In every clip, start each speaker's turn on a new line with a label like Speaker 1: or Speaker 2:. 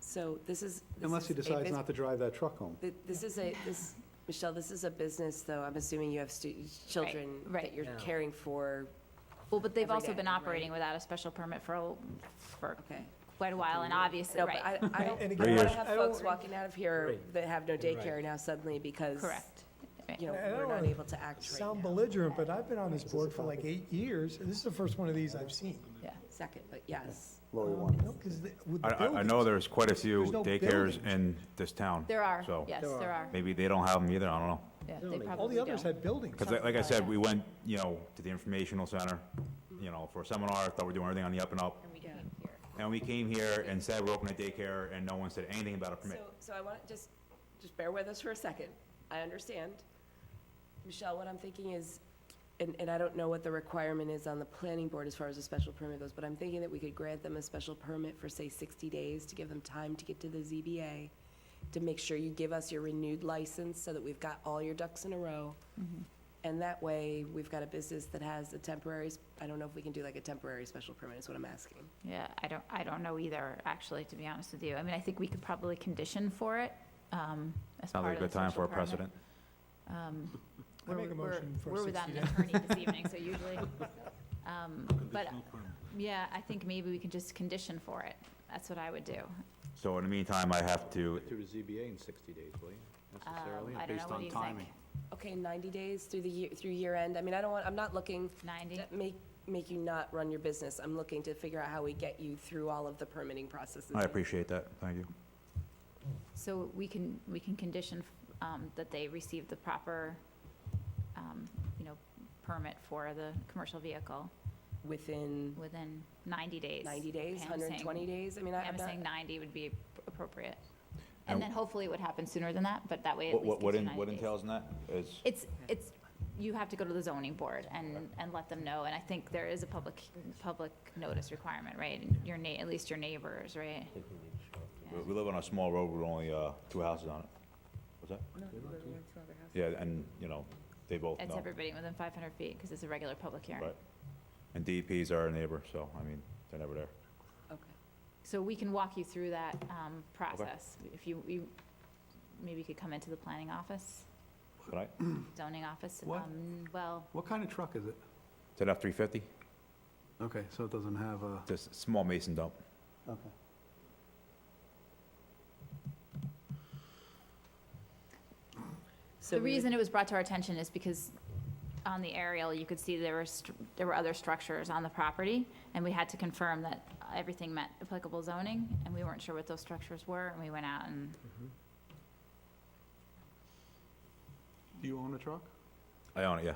Speaker 1: So this is. this
Speaker 2: Unless he
Speaker 1: is a
Speaker 2: decides
Speaker 1: bus-
Speaker 2: not to drive that truck home.
Speaker 1: thi- This is a, this, Michelle, this is a business, though. I'm assuming you have stu- children that
Speaker 3: right.
Speaker 1: you're
Speaker 4: No.
Speaker 1: caring for.
Speaker 3: Well, but they've
Speaker 1: Every
Speaker 3: also
Speaker 1: day,
Speaker 3: been
Speaker 1: right?
Speaker 3: operating without a special permit for, a- for
Speaker 1: Okay.
Speaker 3: quite a while, and obviously,
Speaker 1: No, but
Speaker 3: right,
Speaker 1: I, I don't, I
Speaker 5: And
Speaker 1: don't
Speaker 5: again,
Speaker 1: want
Speaker 5: I-
Speaker 1: to have
Speaker 5: I don't-
Speaker 1: folks walking out of here
Speaker 4: Right.
Speaker 1: that have no daycare
Speaker 4: Right.
Speaker 1: now suddenly because,
Speaker 3: correct. Right.
Speaker 1: you know,
Speaker 5: I don't
Speaker 1: we're not
Speaker 5: wanna
Speaker 1: able to act right
Speaker 5: Sound
Speaker 1: now.
Speaker 5: belligerent, but I've been on this board for like
Speaker 2: copy?
Speaker 5: eight years, and this is the first one of these I've seen.
Speaker 1: Second, but yes.
Speaker 2: Lori
Speaker 5: Um,
Speaker 2: wanted.
Speaker 5: no, 'cause the- with
Speaker 6: I,
Speaker 5: the
Speaker 6: I- I know
Speaker 5: buildings,
Speaker 6: there's quite a few
Speaker 5: There's no
Speaker 6: daycares
Speaker 5: buildings.
Speaker 6: in this town.
Speaker 3: There are,
Speaker 6: So
Speaker 3: yes, there are.
Speaker 6: maybe they don't have them either, I don't know.
Speaker 3: Yeah, they
Speaker 4: Buildings.
Speaker 3: probably
Speaker 5: All the others
Speaker 3: don't.
Speaker 5: had buildings.
Speaker 6: Because like I said, we went, you know, to the informational center, you know, for a seminar, thought we were doing everything on the up and up.
Speaker 1: Yeah.
Speaker 6: And we came here and said we're opening a daycare, and no one said anything about a
Speaker 1: So,
Speaker 6: permit.
Speaker 1: so I want, just, just bear with us for a second. I understand. Michelle, what I'm thinking is, and, and I don't know what the requirement is on the planning board as far as a special permit goes, but I'm thinking that we could grant them a special permit for, say, 60 days to give them time to get to the ZBA, to make sure you give us your renewed license so that we've got all your ducks in a row. And that way, we've got a business that has a temporary, s- I don't know if we can do like a temporary special permit, is what I'm asking.
Speaker 3: Yeah, I don't, I don't know either, actually, to be honest with you. I mean, I think we could probably condition for it, um, as
Speaker 6: Sounds
Speaker 3: part
Speaker 6: like
Speaker 3: of
Speaker 6: a
Speaker 3: the
Speaker 6: good time
Speaker 3: special
Speaker 6: for a
Speaker 3: permit.
Speaker 6: precedent.
Speaker 3: Um,
Speaker 5: I
Speaker 3: we're-
Speaker 5: make a
Speaker 3: we're-
Speaker 5: motion for
Speaker 3: We're without
Speaker 5: 60
Speaker 3: an attorney this evening, so usually, um, but, yeah, I think maybe we can just condition for it. That's what I would do.
Speaker 6: So in the meantime, I have to,
Speaker 4: Through the ZBA in 60 days, will you?
Speaker 3: Um,
Speaker 4: Necessarily,
Speaker 3: I don't know,
Speaker 4: based
Speaker 3: what do
Speaker 4: on
Speaker 3: you think?
Speaker 4: timing.
Speaker 1: Okay, 90 days through the year, through year end? I mean, I don't want, I'm not looking
Speaker 3: 90?
Speaker 1: that make, make you not run your business. I'm looking to figure out how we get you through all of the permitting processes.
Speaker 6: I appreciate that, thank you.
Speaker 3: So we can, we can condition um, that they receive the proper, um, you know, permit for the commercial vehicle
Speaker 1: Within
Speaker 3: within 90 days.
Speaker 1: 90 days,
Speaker 3: Pam is saying-
Speaker 1: 120 days? I mean, I- I'm
Speaker 3: I'm
Speaker 1: not,
Speaker 3: saying 90 would be ap- appropriate.
Speaker 6: And-
Speaker 3: And then hopefully it would happen sooner than that, but that way at
Speaker 6: What,
Speaker 3: least
Speaker 6: what, what
Speaker 3: gives you
Speaker 6: in-
Speaker 3: 90
Speaker 6: what
Speaker 3: days.
Speaker 6: entails in that is,
Speaker 3: It's, it's, you have to go to the zoning board and, and let them know, and I think there is a public, public notice requirement, right? And Your na, at least your neighbors, right?
Speaker 6: we- we live on a small road with only, uh, two houses on it. What's that? Yeah, and, you know, they both know.
Speaker 3: It's everybody within 500 feet, because it's a regular public hearing.
Speaker 6: Right. And DEP's our neighbor, so, I mean, they're never there.
Speaker 1: okay.
Speaker 3: So we can walk you through that um, process. If you, you, maybe you could come into the planning office,
Speaker 6: Can I,
Speaker 3: zoning office.
Speaker 2: What?
Speaker 3: um, Well,
Speaker 2: What kind of truck is it?
Speaker 6: is it F three fifty?
Speaker 2: Okay, so it doesn't have a,
Speaker 6: Just small mason dump.
Speaker 2: okay.
Speaker 1: So we
Speaker 3: the
Speaker 1: would-
Speaker 3: reason it was brought to our attention is because on the aerial, you could see there were, str- there were other structures on the property, and we had to confirm that everything met applicable zoning, and we weren't sure what those structures were, and we went out and,
Speaker 2: Do you own a truck?
Speaker 6: I own it, yeah.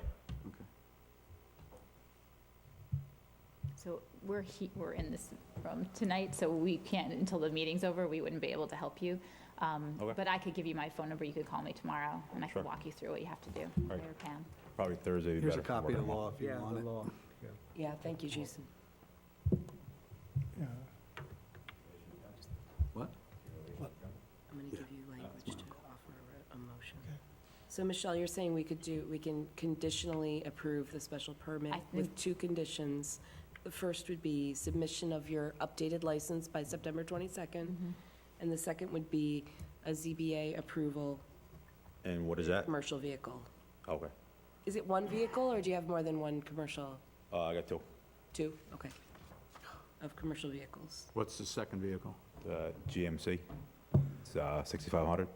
Speaker 3: so we're he, we're in this room tonight, so we can't, until the meeting's over, we wouldn't be able to help you. Um,
Speaker 6: Okay.
Speaker 3: But I could give you my phone number, you could call me tomorrow, and I
Speaker 6: Sure.
Speaker 3: could walk you through what you have to do,
Speaker 6: right.
Speaker 3: or Pam.
Speaker 6: Probably Thursday would be
Speaker 2: Here's
Speaker 6: better.
Speaker 2: a
Speaker 6: for
Speaker 2: copy of the
Speaker 6: working.
Speaker 2: law if you want it.
Speaker 4: law.
Speaker 1: Yeah, thank you, Jason.
Speaker 5: Yeah.
Speaker 1: I'm going to give you language to offer a motion. So Michelle, you're saying we could do, we can conditionally approve the special permit
Speaker 3: I
Speaker 1: with
Speaker 3: think-
Speaker 1: two conditions. The first would be submission of your updated license by September 22nd,
Speaker 3: Mm-hmm.
Speaker 1: and the second would be a ZBA approval,
Speaker 6: And what is that?
Speaker 1: commercial vehicle.
Speaker 6: Okay,
Speaker 1: Is it one vehicle, or do you have more than one commercial?
Speaker 6: uh, I got two,
Speaker 1: Two? Okay. Of commercial vehicles.
Speaker 4: What's the second vehicle?
Speaker 6: uh, GMC, it's, uh, sixty-five hundred.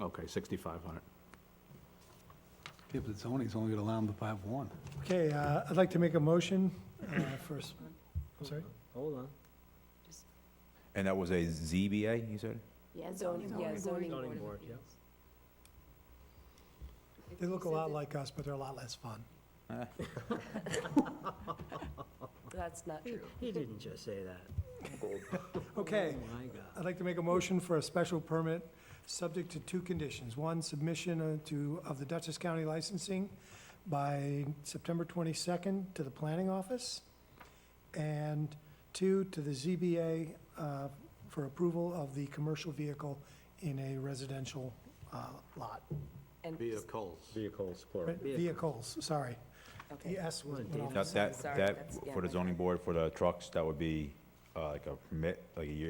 Speaker 4: Okay, 6,500.
Speaker 2: Yeah, but zoning's only gonna allow them to have one.
Speaker 5: Okay, uh, I'd like to make a motion uh, for, s- I'm sorry?
Speaker 4: Hold on.
Speaker 6: And that was a ZBA, you said?
Speaker 3: Yeah,
Speaker 1: Yeah, zoning
Speaker 4: Zoning
Speaker 1: board of
Speaker 4: board, yeah.
Speaker 1: appeals.
Speaker 5: They look a lot like us, but they're a lot less fun.
Speaker 1: That's not true.
Speaker 4: He didn't just say that.
Speaker 5: Okay.
Speaker 4: Oh, my God.
Speaker 5: I'd like to make a motion for a special permit, subject to two conditions. One, submission uh, to, of the Dutchess County licensing by September 22nd to the planning office, and two, to the ZBA uh, for approval of the commercial vehicle in a residential uh, lot.
Speaker 1: And,
Speaker 4: Vehicles.
Speaker 7: Vehicles, plural.
Speaker 5: Right, Vehicles, sorry.
Speaker 1: okay.
Speaker 5: The S was.
Speaker 4: Come on,
Speaker 5: went
Speaker 4: Dave.
Speaker 5: off.
Speaker 6: That, that,
Speaker 1: Sorry,
Speaker 6: that,
Speaker 1: that's- yeah,
Speaker 6: for the
Speaker 1: my
Speaker 6: zoning board, for the trucks, that would be, uh, like a permit, like a year